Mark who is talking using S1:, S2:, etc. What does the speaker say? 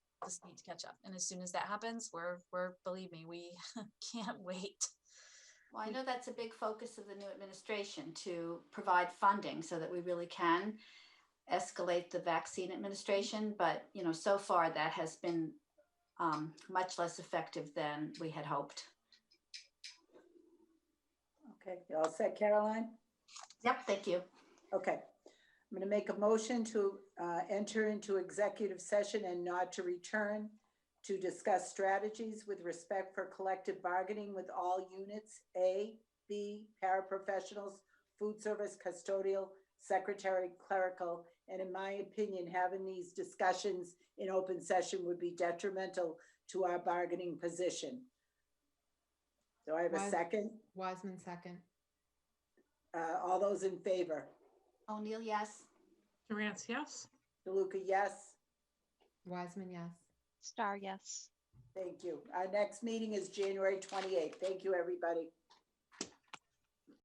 S1: just need to catch up. And as soon as that happens, we're, we're, believe me, we can't wait.
S2: Well, I know that's a big focus of the new administration to provide funding so that we really can escalate the vaccine administration. But, you know, so far that has been um, much less effective than we had hoped.
S3: Okay, you all set, Caroline?
S2: Yep, thank you.
S3: Okay. I'm going to make a motion to uh, enter into executive session and not to return to discuss strategies with respect for collective bargaining with all units, A, B, paraprofessionals, food service, custodial, secretary, clerical, and in my opinion, having these discussions in open session would be detrimental to our bargaining position. Do I have a
S4: Why-
S3: second?
S4: Wiseman second.
S3: Uh, All those in favor?
S2: O'Neill, yes.
S5: Durant, yes.
S3: DeLuca, yes?
S4: Wiseman, yes.
S6: Star, yes.
S3: Thank you. Our next meeting is January 28th. Thank you, everybody.